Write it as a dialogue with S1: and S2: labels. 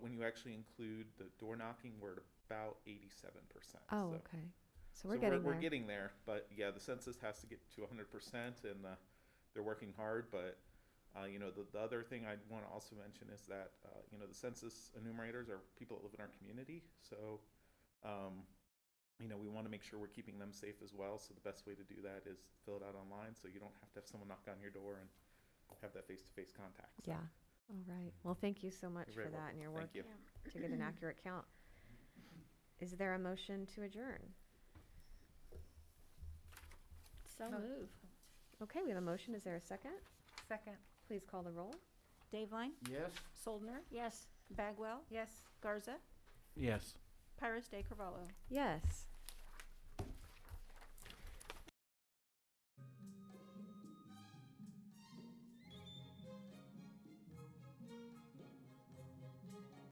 S1: you actually include the door knocking, we're at about 87%.
S2: Oh,
S1: So-
S2: okay. So
S1: So
S2: we're getting
S1: we're,
S2: there.
S1: getting there, but yeah, the census has to get to 100%, and uh, they're working hard. But uh, you know, the, the other thing I want to also mention is that uh, you know the census enumerators are people that live in our community, so um, you know we want to make sure we're keeping them safe as well. So the best way to do that is fill it out online, so you don't have to have someone knock on your door and have that face-to-face contact. So
S2: Yeah. All right. Well, thank you so much
S1: very
S2: for
S1: welcome.
S2: that and your work
S1: Thank
S2: to
S1: you.
S2: get an accurate count. Is there a motion to adjourn?
S3: So move.
S2: Okay, we have a motion. Is there a second?
S3: Second.
S2: Please call the roll.
S4: Daveline,
S5: Yes?
S4: Soldner,
S3: Yes.
S4: Bagwell,
S3: Yes.
S4: Garza,
S5: Yes.
S4: Pyrus de Carvalho.
S2: Yes.